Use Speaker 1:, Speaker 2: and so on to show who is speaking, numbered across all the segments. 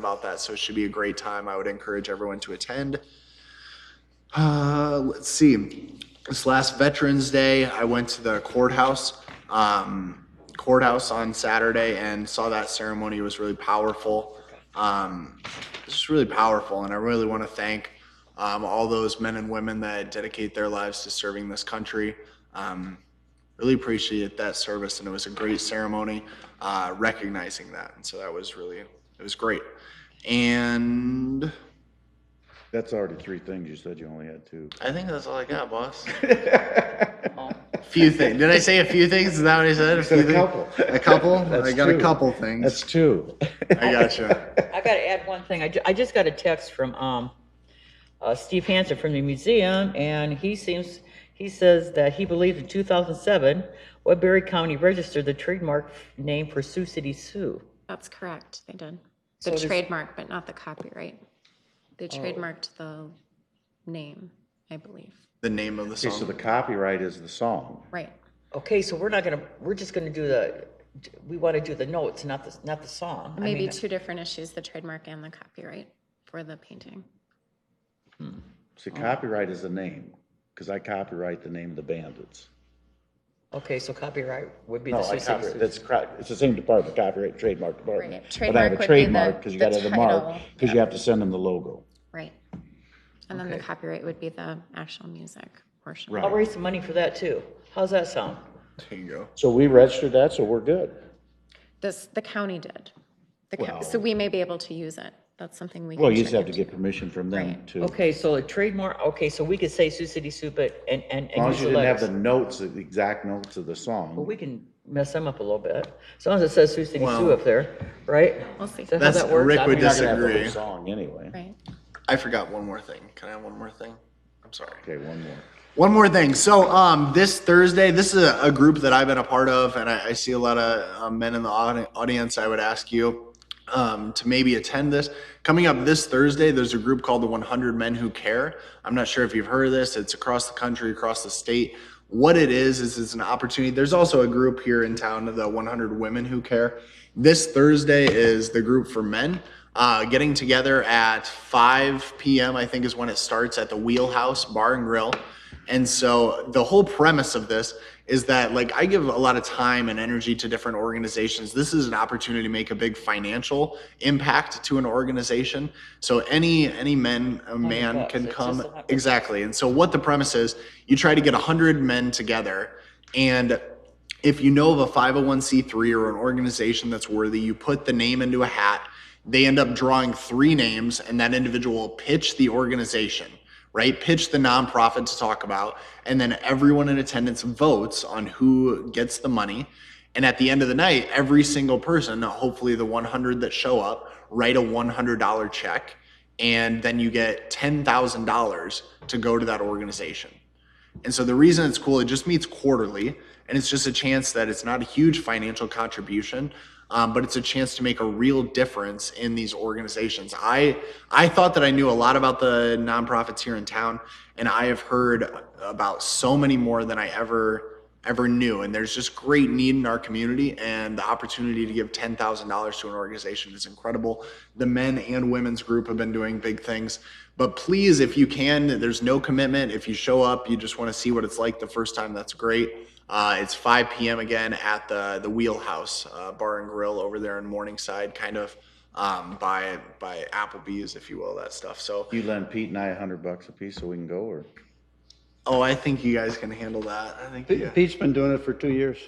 Speaker 1: about that. So it should be a great time. I would encourage everyone to attend. Uh, let's see. This last Veterans Day, I went to the courthouse, um, courthouse on Saturday and saw that ceremony. It was really powerful. Um, it's just really powerful. And I really want to thank um, all those men and women that dedicate their lives to serving this country. Um, really appreciate that service and it was a great ceremony uh, recognizing that and so that was really it was great and
Speaker 2: That's already three things. You said you only had two.
Speaker 3: I think that's all I got, boss.
Speaker 1: a few things did i say a few things is that what i said a, few
Speaker 2: a
Speaker 1: thing-
Speaker 2: couple.
Speaker 1: a couple i
Speaker 2: That's
Speaker 1: got
Speaker 2: two.
Speaker 1: a couple things
Speaker 2: That's two.
Speaker 1: i gotcha
Speaker 4: I gotta add one thing. I, ju- I just got a text from, um, uh, Steve Hansen from the museum, and he seems, he says that he believes in two thousand seven, Woodbury County registered the trademark name for Sioux City Sioux.
Speaker 5: That's correct, they did. The trademark, but not the copyright. They
Speaker 2: Oh.
Speaker 5: trademarked the name, I believe.
Speaker 1: the name of the
Speaker 2: Okay, so
Speaker 1: song
Speaker 2: the copyright is the song.
Speaker 5: Right.
Speaker 4: Okay, so we're not gonna, we're just gonna do the, we wanna do the notes, not the, not the song. I
Speaker 5: Maybe
Speaker 2: uh,
Speaker 4: mean,
Speaker 5: two different issues, the trademark and the copyright for the painting. Oh.
Speaker 2: See, copyright is the name, because I copyright the name of the bandits.
Speaker 4: Okay, so copyright would be
Speaker 2: No,
Speaker 4: the
Speaker 2: I
Speaker 4: Sioux City
Speaker 2: copyright,
Speaker 4: Sioux.
Speaker 2: that's correct. It's the same department, copyright, trademark department.
Speaker 5: Right,
Speaker 2: But I have a
Speaker 5: trademark would be the-
Speaker 2: trademark, because you
Speaker 5: the
Speaker 2: gotta have the mark,
Speaker 5: title.
Speaker 2: because you have to send them the logo.
Speaker 5: Right. And then the copyright would be the actual music portion.
Speaker 2: Right.
Speaker 4: I'll raise some money for that too. How's that sound?
Speaker 1: there you go
Speaker 2: So we registered that, so we're good.
Speaker 5: This, the county did. The county, so we may be able to use it. That's something we can
Speaker 2: Well, you just
Speaker 5: check
Speaker 2: have to
Speaker 5: into.
Speaker 2: get permission from them to, as
Speaker 4: Okay, so a trademark, okay, so we could say Sioux City Sioux, but, and, and. and
Speaker 2: long
Speaker 4: use
Speaker 2: as
Speaker 4: the
Speaker 2: you didn't have
Speaker 4: letters.
Speaker 2: the notes, the exact notes of the
Speaker 4: Well,
Speaker 2: song.
Speaker 4: we can mess them up a little bit. As long as it says Sioux City Sioux
Speaker 1: Well-
Speaker 4: up there, right?
Speaker 5: We'll see,
Speaker 4: Is that how
Speaker 1: That's-
Speaker 4: that works?
Speaker 1: Rick
Speaker 4: I
Speaker 1: would
Speaker 4: mean,
Speaker 2: You're not gonna have the whole
Speaker 1: Disagree.
Speaker 2: Song anyway.
Speaker 5: right?
Speaker 1: i forgot one more thing can i have one more thing i'm sorry
Speaker 2: Okay, one more.
Speaker 1: One more thing. So, um, this Thursday, this is a, a group that I've been a part of, and I, I see a lot of um, men in the audi- audience. I would ask you um, to maybe attend this. Coming up this Thursday, there's a group called the 100 Men Who Care. I'm not sure if you've heard of this. It's across the country, across the state. What it is is it's an opportunity. There's also a group here in town, the 100 Women Who Care. This Thursday is the group for men uh, getting together at 5 p.m. I think is when it starts at the Wheelhouse Bar and Grill. And so the whole premise of this is that like I give a lot of time and energy to different organizations. This is an opportunity to make a big financial impact to an organization. So any any men a man
Speaker 4: bucks,
Speaker 1: can
Speaker 4: it's
Speaker 1: come
Speaker 4: just a hundred
Speaker 1: exactly. And so what the premise is, you try to get 100 men together and if you know of a 501c3 or an organization that's worthy, you put the name into a hat. They end up drawing three names, and that individual will pitch the organization, right? Pitch the nonprofit to talk about. And then everyone in attendance votes on who gets the money. And at the end of the night, every single person, hopefully the 100 that show up, write a $100 check. And then you get $10,000 to go to that organization. And so the reason it's cool, it just meets quarterly, and it's just a chance that it's not a huge financial contribution, um, but it's a chance to make a real difference in these organizations. I I thought that I knew a lot about the nonprofits here in town, and I have heard about so many more than I ever ever knew. And there's just great need in our community, and the opportunity to give ten thousand dollars to an organization is incredible. The men and women's group have been doing big things. But please, if you can, there's no commitment. If you show up, you just want to see what it's like the first time, that's great. Uh, it's 5 p.m. again at the the Wheelhouse uh, Bar and Grill over there in Morningside, kind of um, by by Applebee's, if you will, that stuff. So,
Speaker 2: You lend Pete and I a hundred bucks apiece so we can go, or?
Speaker 1: oh, I think you guys can handle that. I think you,
Speaker 6: Pete's been doing it for two years.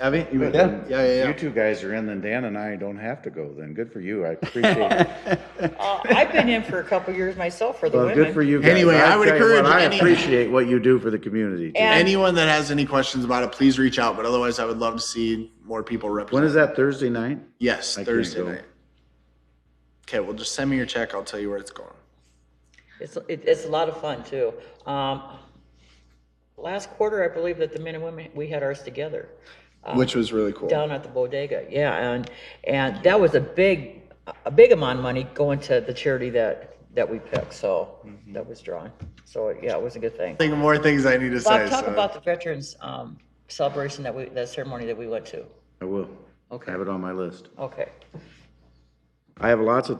Speaker 1: have you? you
Speaker 2: Good.
Speaker 1: yeah, yeah, yeah.
Speaker 2: You two guys are in, then Dan and I don't have to go then. Good for you. I appreciate it.
Speaker 4: Uh, I've been in for a couple years myself for the
Speaker 2: Well, good for
Speaker 4: women.
Speaker 2: you guys.
Speaker 1: Anyway, I
Speaker 2: I'll
Speaker 1: would
Speaker 2: tell you
Speaker 1: encourage
Speaker 2: what, I
Speaker 1: any-
Speaker 2: appreciate what you do for the community. too.
Speaker 4: And-
Speaker 1: Anyone that has any questions about it, please reach out. But otherwise, I would love to see more people
Speaker 2: When
Speaker 1: represent.
Speaker 2: is that, Thursday night?
Speaker 1: yes,
Speaker 2: I can't
Speaker 1: Thursday
Speaker 2: go.
Speaker 1: night. Okay, well, just send me your check. I'll tell you where it's going.
Speaker 4: It's, it- it's a lot of fun too. Um, last quarter, I believe that the men and women, we had ours together
Speaker 1: Which was really cool.
Speaker 4: down at the bodega. Yeah, and, and that was a big, a big amount of money going to the charity that, that we picked, so
Speaker 1: Mm-hmm.
Speaker 4: that was drawn. So, yeah, it was a good thing.
Speaker 1: Think of more things I need to say.
Speaker 4: Bob, talk
Speaker 1: so-
Speaker 4: about the veterans, um, celebration that we, that ceremony that we went to.
Speaker 2: I will. I
Speaker 4: Okay,
Speaker 2: have it on my list.
Speaker 4: okay.
Speaker 2: I have lots of